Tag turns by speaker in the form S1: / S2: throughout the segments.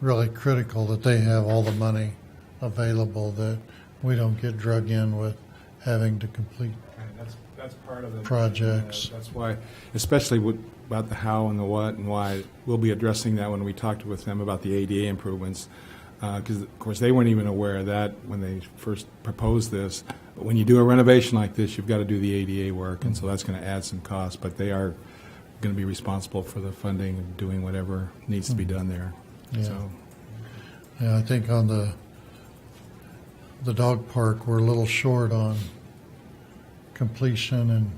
S1: really critical that they have all the money available that we don't get drug in with having to complete.
S2: And That's, that's part of the.
S1: Projects.
S2: That's why, especially with, about the how and the what and why, we'll be addressing that when we talked with them about the ADA improvements. Because, of course, they weren't even aware of that when they first proposed this. But When you do a renovation like this, you've got to do the ADA work, and so that's going to add some cost. But they are going to be responsible for the funding and doing whatever needs to be done there.
S1: Mm-hmm. Yeah.
S2: So,
S1: Yeah, I think on the, the dog park, we're a little short on completion and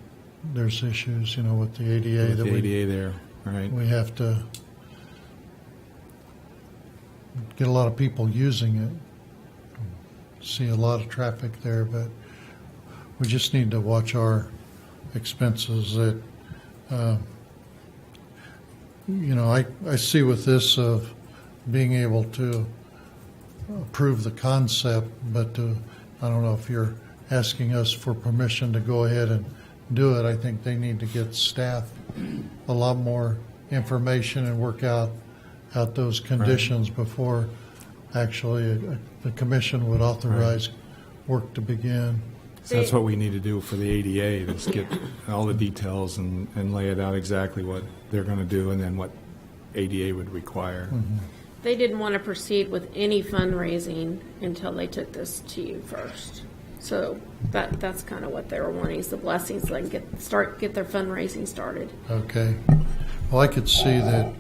S1: there's issues, you know, with the ADA
S2: with
S1: that
S2: the
S1: we
S2: ADA there, all right?
S1: we have to get a lot of people using it. See a lot of traffic there, but we just need to watch our expenses that, uh, you know, I, I see with this of being able to approve the concept, but to, I don't know if you're asking us for permission to go ahead and do it. I think they need to get staff a lot more information and work out, out those conditions before actually uh, the commission would authorize work to begin.
S2: So that's what we need to do for the ADA, is get all the details and, and lay it out exactly what they're going to do and then what ADA would require.
S3: They didn't want to proceed with any fundraising until they took this to you first. So that, that's kind of what they were wanting, is the blessings, so they can get, start, get their fundraising started.
S1: Okay. Well, I could see that,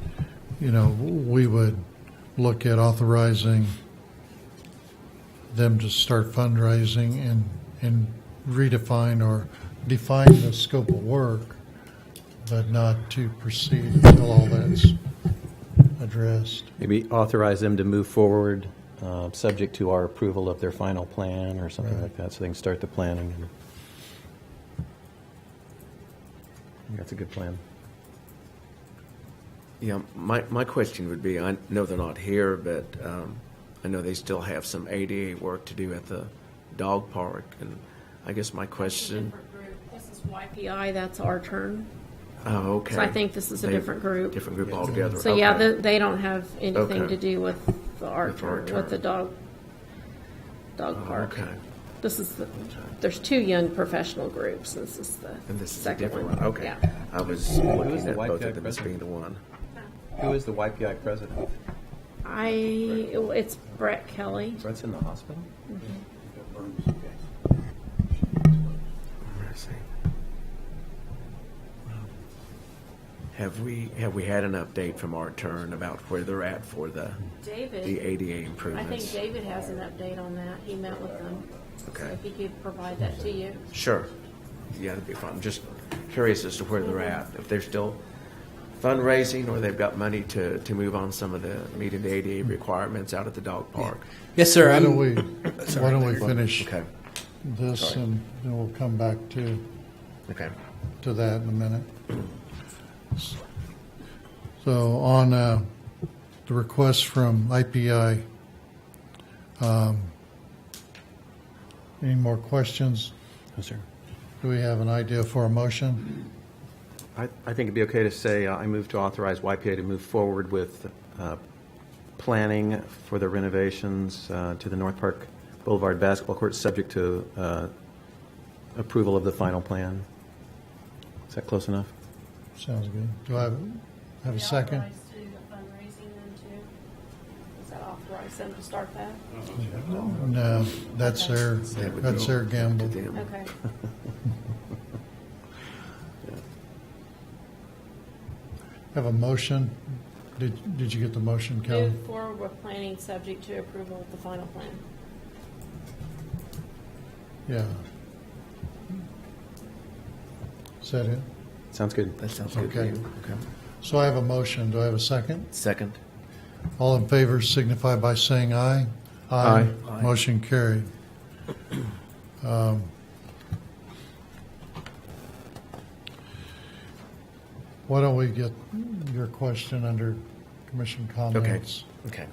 S1: you know, we would look at authorizing them to start fundraising and, and redefine or define the scope of work, but not to proceed until all that's addressed.
S4: Maybe authorize them to move forward, uh, subject to our approval of their final plan or something like that, so they can start the planning. and- I think That's a good plan.
S5: Yeah, my, my question would be, I know they're not here, but um, I know they still have some ADA work to do at the dog park. And I guess my question,
S3: This is YPI, that's our turn.
S5: oh, okay.
S3: So I think this is a
S5: They-
S3: different group.
S5: Different group altogether.
S3: So yeah,
S5: Okay.
S3: the- they don't have anything
S5: Okay.
S3: to do with the art
S5: With our
S3: turn, with the
S5: turn.
S3: dog, dog park.
S5: Okay.
S3: This is, the there's two young professional groups, this is the
S5: And this is a
S3: second
S5: different
S3: one.
S5: one, okay.
S3: Yeah.
S5: I was looking
S4: the
S5: at
S4: white
S5: both
S4: guy
S5: of them as
S4: present?
S5: being the one.
S4: Who is the YPI president?
S3: I, it's Brett Kelly.
S4: Brett's in the hospital?
S5: Mm-hmm. Where is he? Have we, have we had an update from our turn about where they're at for the, the
S3: David,
S5: ADA
S3: I think
S5: improvements?
S3: David has an update on that. He met with them. So
S5: Okay.
S3: If he could provide that to you.
S5: Sure. Yeah, that'd be fun. I'm just curious as to where they're at, if they're still fundraising or they've got money to, to move on some of the, meeting the ADA requirements out at the dog park.
S6: Yes, sir.
S1: Why don't
S6: I'm-
S1: we, why don't we finish
S5: Okay,
S1: this
S5: Sorry.
S1: and then we'll come back to,
S5: okay.
S1: to that in a minute. So on uh, the request from IPI, um, any more questions?
S4: No, sir.
S1: Do we have an idea for a motion?
S4: I, I think it'd be okay to say, uh, I move to authorize YPA to move forward with uh, planning for the renovations uh, to the North Park Boulevard basketball court, subject to uh, approval of the final plan. Is that close enough?
S1: Sounds good. Do I have- have a second?
S3: Authorized to do the fundraising then too? Does that authorize them to start that?
S1: No, that's their,
S5: That would
S1: that's
S5: go
S1: their gamble.
S5: to them.
S3: Okay.
S1: Have a motion? Did, did you get the motion, Kelly?
S3: Move forward with planning subject to approval of the final plan.
S1: Yeah. Is that it?
S4: Sounds good.
S5: That sounds good to
S1: Okay.
S5: you. Okay.
S1: So I have a motion. Do I have a second?
S5: Second?
S1: All in favor signify by saying aye.
S4: Aye.
S5: Aye.
S1: Motion carried. Um, Why don't we get your question under commission
S5: Okay,
S1: comments?
S5: okay.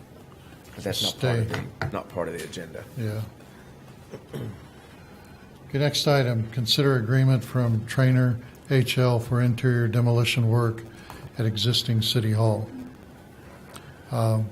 S5: But that's not part of
S1: Stay.
S5: the, not part of the agenda.
S1: Yeah. Okay, next item, consider agreement from Trainer HL for interior demolition work at existing city hall. Um,